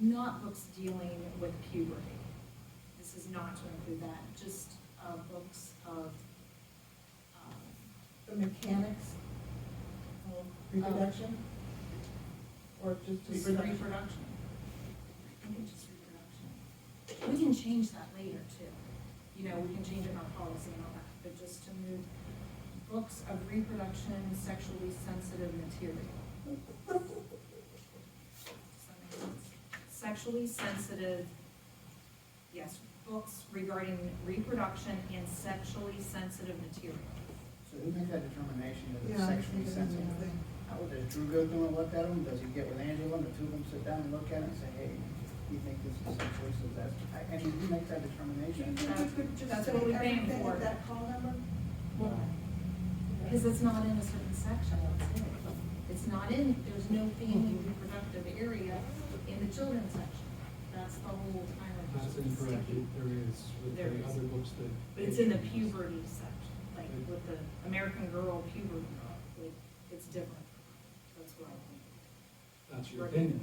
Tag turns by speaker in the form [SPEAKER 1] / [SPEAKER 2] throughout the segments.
[SPEAKER 1] not books dealing with puberty. This is not to include that, just, uh, books of, um,
[SPEAKER 2] The mechanics of reproduction? Or just
[SPEAKER 1] just
[SPEAKER 2] reproduction?
[SPEAKER 1] reproduction. I think it's just reproduction. We can change that later too. You know, we can change it in our policy and all that, but just to move books of reproduction, sexually sensitive material. Does that make sense? Sexually sensitive, yes, books regarding reproduction and sexually sensitive material.
[SPEAKER 3] So who makes that determination that it's
[SPEAKER 2] Yeah, I
[SPEAKER 3] sexually
[SPEAKER 2] think it's
[SPEAKER 3] sensitive?
[SPEAKER 2] another thing.
[SPEAKER 3] How, does Drew go through and look at them? Does he get with Angela and the two of them sit down and look at it and say, hey, you think this is sexually sensitive? I, I mean, who makes that determination?
[SPEAKER 1] That's what we're paying
[SPEAKER 2] Everything
[SPEAKER 1] for.
[SPEAKER 2] at that call number?
[SPEAKER 1] Well, Because it's not in a certain section, that's it. It's not in, there's no family reproductive area in the children's section. That's the whole kind of.
[SPEAKER 4] That's incorrect, It- there is, with
[SPEAKER 1] There is.
[SPEAKER 4] the other books that.
[SPEAKER 1] But it's in the puberty section, like with the American Girl puberty, girl, like, it's different. That's what I think.
[SPEAKER 4] That's your opinion.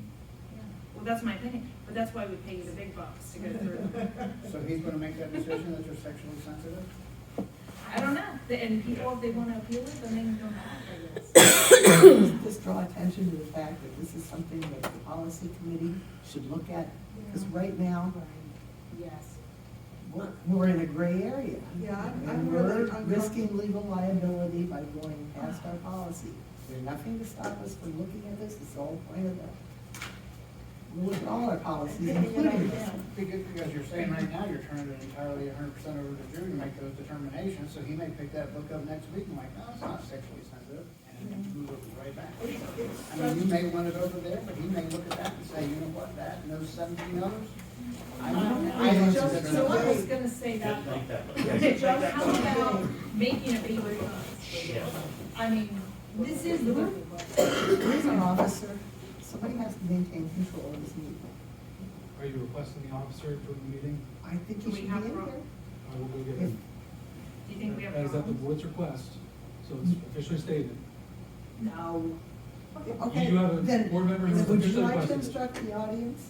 [SPEAKER 1] Well, that's my opinion, but that's why we pay you the big bucks to go through.
[SPEAKER 3] So he's gonna make that decision that you're sexually sensitive?
[SPEAKER 1] I don't know, and people, if they wanna appeal it, then they can go back, I guess.
[SPEAKER 5] just draw attention to the fact that this is something that the policy committee should look at, because right now,
[SPEAKER 1] Yes.
[SPEAKER 5] we're, we're in a gray area.
[SPEAKER 2] Yeah, I'm- I'm
[SPEAKER 5] And
[SPEAKER 2] really
[SPEAKER 5] we're
[SPEAKER 2] uncomfortable.
[SPEAKER 5] risking legal liability by going past our policy. There's nothing to stop us from looking at this, it's all part of the, we'll look at all our policies, including this. one.
[SPEAKER 3] Because, because you're saying right now, you're turning it entirely hundred percent over to Drew to make those determinations, so he may pick that book up next week and like, no, it's not sexually sensitive, and then move it right back. I mean, you may want it over there, but he may look at that and say, you know what, that, and those seventeen others? I don't, I don't
[SPEAKER 2] Just
[SPEAKER 3] consider
[SPEAKER 1] So I
[SPEAKER 3] that.
[SPEAKER 1] was gonna say that.
[SPEAKER 6] Just make that look.
[SPEAKER 1] How about making a big difference?
[SPEAKER 6] Yeah.
[SPEAKER 1] I mean, this is the.
[SPEAKER 5] There's an officer, somebody has to maintain control of this meeting.
[SPEAKER 4] Are you requesting the officer during the meeting?
[SPEAKER 5] I think
[SPEAKER 1] Do
[SPEAKER 5] he
[SPEAKER 1] we
[SPEAKER 5] should be
[SPEAKER 1] have
[SPEAKER 5] in
[SPEAKER 1] room?
[SPEAKER 5] here.
[SPEAKER 4] I will go get him.
[SPEAKER 1] Do you think we have
[SPEAKER 4] That is at the
[SPEAKER 1] problems?
[SPEAKER 4] board's request, so it's officially stated.
[SPEAKER 1] No.
[SPEAKER 5] Okay,
[SPEAKER 4] You have a
[SPEAKER 5] then,
[SPEAKER 4] board member who's
[SPEAKER 5] would you
[SPEAKER 4] officially
[SPEAKER 5] like to
[SPEAKER 4] requested.
[SPEAKER 5] instruct the audience?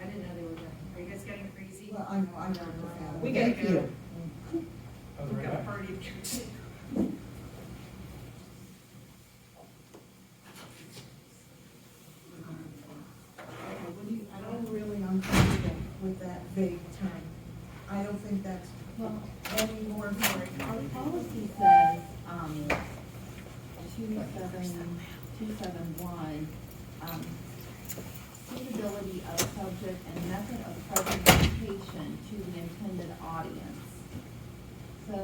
[SPEAKER 1] I didn't know they were done. Are you guys getting crazy?
[SPEAKER 2] Well, I know, I know. the family.
[SPEAKER 1] We gotta
[SPEAKER 5] Thank
[SPEAKER 1] go.
[SPEAKER 5] you.
[SPEAKER 4] I'll be
[SPEAKER 1] We've
[SPEAKER 4] right
[SPEAKER 1] got a
[SPEAKER 4] back.
[SPEAKER 1] party to go to.
[SPEAKER 2] Okay, what do you- I don't really uncomfortable with that vague term. I don't think that's
[SPEAKER 7] Well, anymore, our policy says, um, two seven, two seven one, um, suitability of subject and method of presentation to the intended audience. So,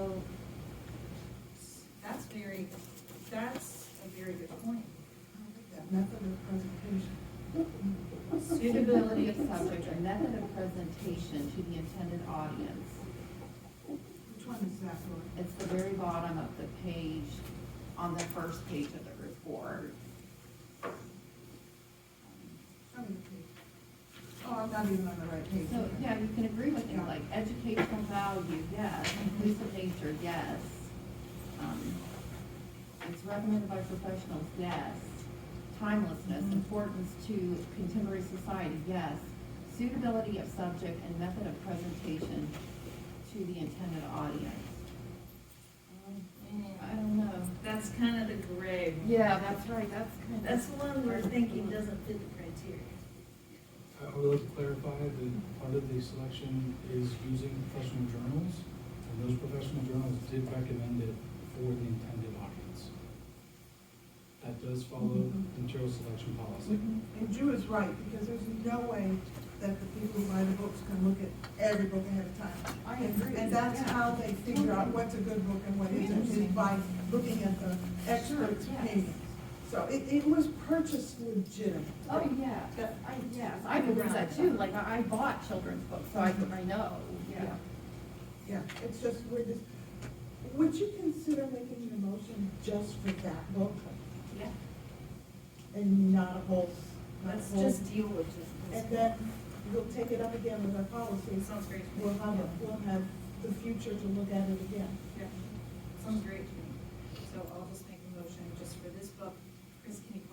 [SPEAKER 1] That's very, that's a very good point.
[SPEAKER 2] that method of presentation.
[SPEAKER 7] suitability of subject or method of presentation to the intended audience.
[SPEAKER 2] Which one is that for?
[SPEAKER 7] It's the very bottom of the page, on the first page of the report.
[SPEAKER 2] Show me the page. Oh, I'm not even on the right page.
[SPEAKER 7] So, yeah, you can agree with things like educational value, yes, inclusive nature, yes. Um, It's recommended by professionals, yes. Timelessness, importance to contemporary society, yes. Suitability of subject and method of presentation to the intended audience. Um, I don't know.
[SPEAKER 1] That's kind of the gray. one.
[SPEAKER 7] Yeah, that's right, that's kind of.
[SPEAKER 1] That's the one we're thinking doesn't fit the criteria.
[SPEAKER 4] I I would like to clarify that part of the selection is using professional journals, and those professional journals did recommend it for the intended audience. That does follow
[SPEAKER 1] Mm-hmm.
[SPEAKER 4] the material selection policy.
[SPEAKER 2] And Drew is right, because there's no way that the people who buy the books can look at every book ahead of time.
[SPEAKER 5] I agree,
[SPEAKER 2] And that's
[SPEAKER 5] yeah.
[SPEAKER 2] how they figure out what's a good book and what isn't, is by looking at the expert's
[SPEAKER 7] Sure, yes.
[SPEAKER 2] opinion. So it, it was purchased legitimately.
[SPEAKER 7] Oh, yeah,
[SPEAKER 2] That-
[SPEAKER 7] I, yes, I believe that too, like, I I bought children's books, so I, I know, yeah.
[SPEAKER 2] Yeah, it's just, we're just, would you consider making an motion just for that book
[SPEAKER 1] Yeah.
[SPEAKER 2] and not a whole, not a
[SPEAKER 1] Let's
[SPEAKER 2] whole?
[SPEAKER 1] just deal with this.
[SPEAKER 2] And then we'll take it up again with our policy.
[SPEAKER 1] It sounds great. to me.
[SPEAKER 2] We'll have, it- we'll have the future to look at it again.
[SPEAKER 1] Yeah, sounds great to me. So I'll just make a motion just for this book. Chris, can you